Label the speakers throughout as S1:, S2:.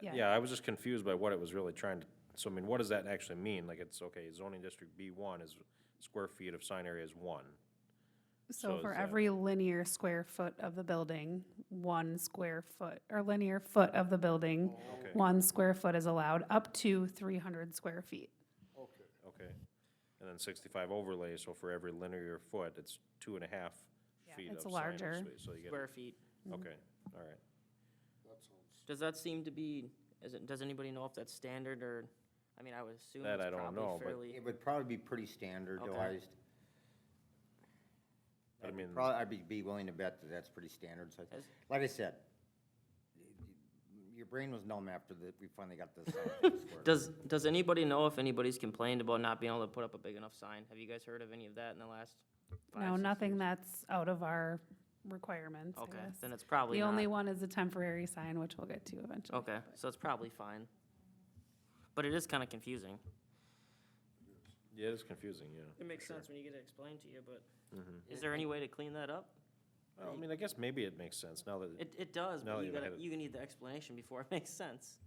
S1: Yeah.
S2: Yeah, I was just confused by what it was really trying to, so I mean, what does that actually mean? Like, it's, okay, zoning district B one is, square feet of sign area is one.
S1: So
S2: So
S1: for
S2: is that-
S1: every linear square foot of the building, one square foot, or linear foot of the building,
S2: Okay,
S1: one square foot is allowed up to three hundred square feet.
S3: Okay,
S2: okay. And then sixty-five overlay, so for every linear foot, it's two and a half feet of
S1: It's
S2: sign or
S1: larger.
S2: space, So you get,
S4: square mm-hmm. feet.
S2: okay, all right.
S3: that sounds,
S4: Does that seem to be, is it, does anybody know if that's standard or, I mean, I would assume
S2: That I
S4: it's
S2: don't know,
S4: probably
S2: but-
S4: fairly.
S5: It would probably be pretty standardized.
S2: But I mean,
S5: Probably, I'd be, be willing to bet that that's pretty standard, so, I-
S4: As-
S5: like I said, your brain was numb after that, we finally got this. out.
S4: Does, does anybody know if anybody's complained about not being able to put up a big enough sign? Have you guys heard of any of that in the last five,
S1: No,
S4: six
S1: nothing
S4: years?
S1: that's out of our requirements, I
S4: Okay,
S1: guess.
S4: then it's probably
S1: The only
S4: not.
S1: one is a temporary sign, which we'll get to eventually.
S4: Okay, so it's probably fine. But it is kind of confusing.
S2: yeah, it's confusing, yeah.
S4: It makes sense when you get it explained to you, but Mm-hmm. is there any way to clean that up?
S2: Well, I mean, I guess maybe it makes sense now that,
S4: It, it does,
S2: Now that
S4: but you
S2: you've
S4: gotta,
S2: had it-
S4: you need the explanation before it makes sense.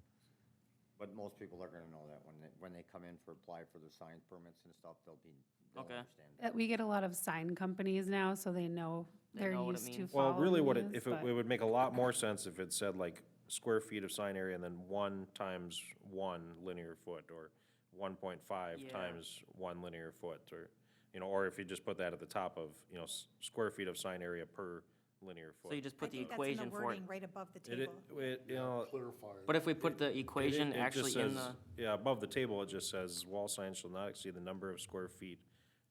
S5: But most people are gonna know that when they, when they come in for, apply for their sign permits and stuff, they'll be, they'll
S4: Okay.
S5: understand.
S1: Uh, We get a lot of sign companies now, so they know,
S4: They
S1: they're
S4: know what it
S1: used to
S4: means.
S2: well,
S1: following
S2: really what it,
S1: this,
S2: if it,
S1: but-
S2: it would make a lot more sense if it said like square feet of sign area and then one times one linear foot or one point five
S4: Yeah.
S2: times one linear foot or, you know, or if you just put that at the top of, you know, s- square feet of sign area per linear
S4: So you
S2: foot.
S4: just
S6: I
S4: put the
S6: think that's in
S4: equation for it.
S6: wording Right above the
S2: It, it,
S6: table.
S2: it, you know. it-
S3: clarify.
S4: But if we put the
S2: it-
S4: equation
S2: it just
S4: actually in
S2: says-
S4: the,
S2: Yeah, above the table, it just says wall signs shall not exceed the number of square feet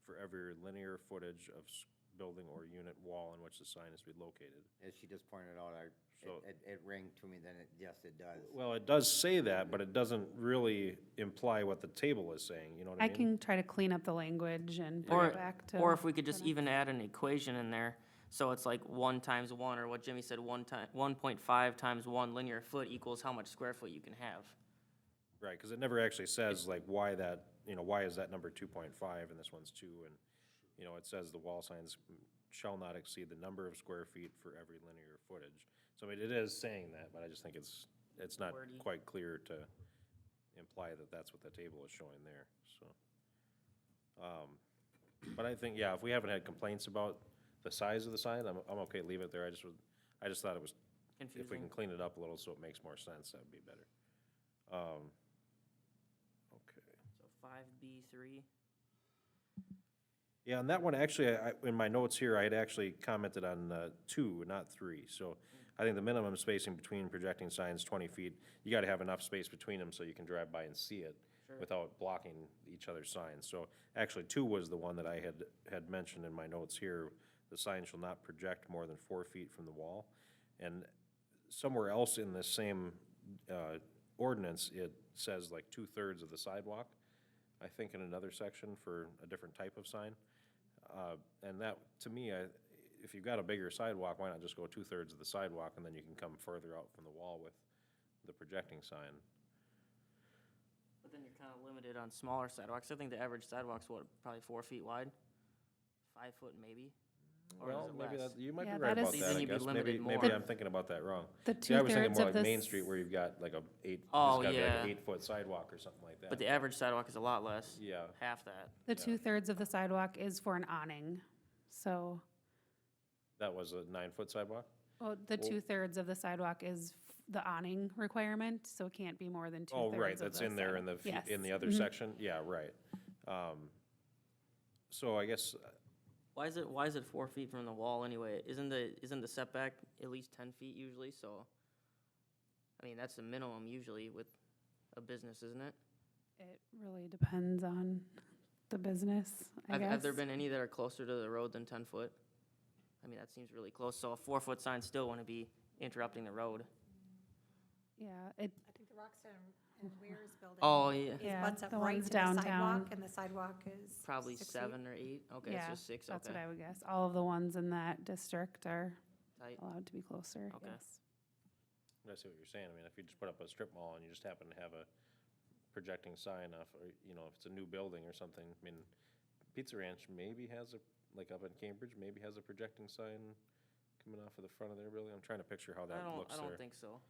S2: for every linear footage of s- building or unit wall in which the sign is to be located.
S5: As she just pointed out, I,
S2: So-
S5: it- it, it rang to me, then it, yes, it does.
S2: Well, it does say that, but it doesn't really imply what the table is saying, you know what I
S1: I
S2: mean?
S1: can try to clean up the language and bring
S4: or,
S1: it back to.
S4: or if we could just even add an equation in there, so it's like one times one, or what Jimmy said, one time, one point five times one linear foot equals how much square foot you can have.
S2: Right, because it never actually says like why that, you know, why is that number two point five and this one's two? And, you know, it says the wall signs shall not exceed the number of square feet for every linear footage. So I mean, it is saying that, but I just think it's, it's not
S4: Wordy.
S2: quite clear to imply that that's what the table is showing there, so. Um, But I think, yeah, if we haven't had complaints about the size of the sign, I'm, I'm okay, leave it there. I just, would- I just thought it was if we
S4: Confusing.
S2: can clean it up a little so it makes more sense, that'd be better. Um, Okay.
S4: So five B three,
S2: Yeah, and that one, actually, I, I- in my notes here, I had actually commented on uh, two, not three. So I think the minimum spacing between projecting signs, twenty feet, you gotta have enough space between them so you can drive by and see it without blocking each other's signs. So actually, two was the one that I had, had mentioned in my notes here. The sign shall not project more than four feet from the wall. And somewhere else in this same uh, ordinance, it says like two-thirds of the sidewalk, I think in another section for a different type of sign. Uh, And that, to me, I- if you've got a bigger sidewalk, why not just go two-thirds of the sidewalk, and then you can come further out from the wall with the projecting sign?
S4: but then you're kind of limited on smaller sidewalks. I think the average sidewalk's what, probably four feet wide? Five foot maybe? Or is
S2: Well,
S4: it
S2: maybe
S4: less?
S2: that, you might be
S1: Yeah,
S2: right
S1: that
S2: about
S1: is-
S2: that,
S4: Then
S2: I
S4: you'd be
S2: guess. Maybe,
S4: limited
S2: maybe
S4: more.
S2: I'm thinking about that wrong.
S1: The
S2: See, I was thinking
S1: two-thirds
S2: more
S1: of
S2: like
S1: the
S2: Main
S1: s-
S2: Street where you've got like a eight, it's
S4: Oh,
S2: got to be like
S4: yeah.
S2: an eight-foot sidewalk or something like that.
S4: But the average sidewalk is a lot less.
S2: Yeah,
S4: Half that.
S1: The two-thirds of the sidewalk is for an awning, so,
S2: that was a nine-foot sidewalk?
S1: well, the
S2: Well-
S1: two-thirds of the sidewalk is f- the awning requirement, so it can't be more than two-thirds
S2: Oh,
S1: of the.
S2: right, that's in there in the,
S1: sidewalk.
S2: fe- in
S1: Yes. Mm-hmm.
S2: the other section? Yeah, right. Um, So I guess, uh,
S4: Why is it, why is it four feet from the wall anyway? Isn't the, isn't the setback at least ten feet usually, so? I mean, that's the minimum usually with a business, isn't it?
S1: It really depends on the business, I
S4: Have,
S1: guess.
S4: have there been any that are closer to the road than ten foot? I mean, that seems really close, so a four-foot sign still wanna be interrupting the road.
S1: Yeah, it,
S6: I think the Roxton and Weir's building.
S4: Oh, yeah,
S6: Is
S1: Yeah,
S6: butts up
S1: the
S6: right
S1: ones
S6: to the
S1: downtown.
S6: sidewalk, and the sidewalk is.
S4: probably
S6: six feet.
S4: seven or eight, okay,
S1: yeah,
S4: so six,
S1: that's what
S4: okay.
S1: I would guess. All of the ones in that district are
S4: Tight.
S1: allowed to be closer,
S4: Okay.
S1: yes.
S2: I see what you're saying. I mean, if you just put up a strip mall and you just happen to have a projecting sign off, or, you know, if it's a new building or something, I mean, Pizza Ranch maybe has a, like up in Cambridge, maybe has a projecting sign coming off of the front of their building. I'm trying to picture how that
S4: I don't,
S2: looks
S4: I don't
S2: there.
S4: think so.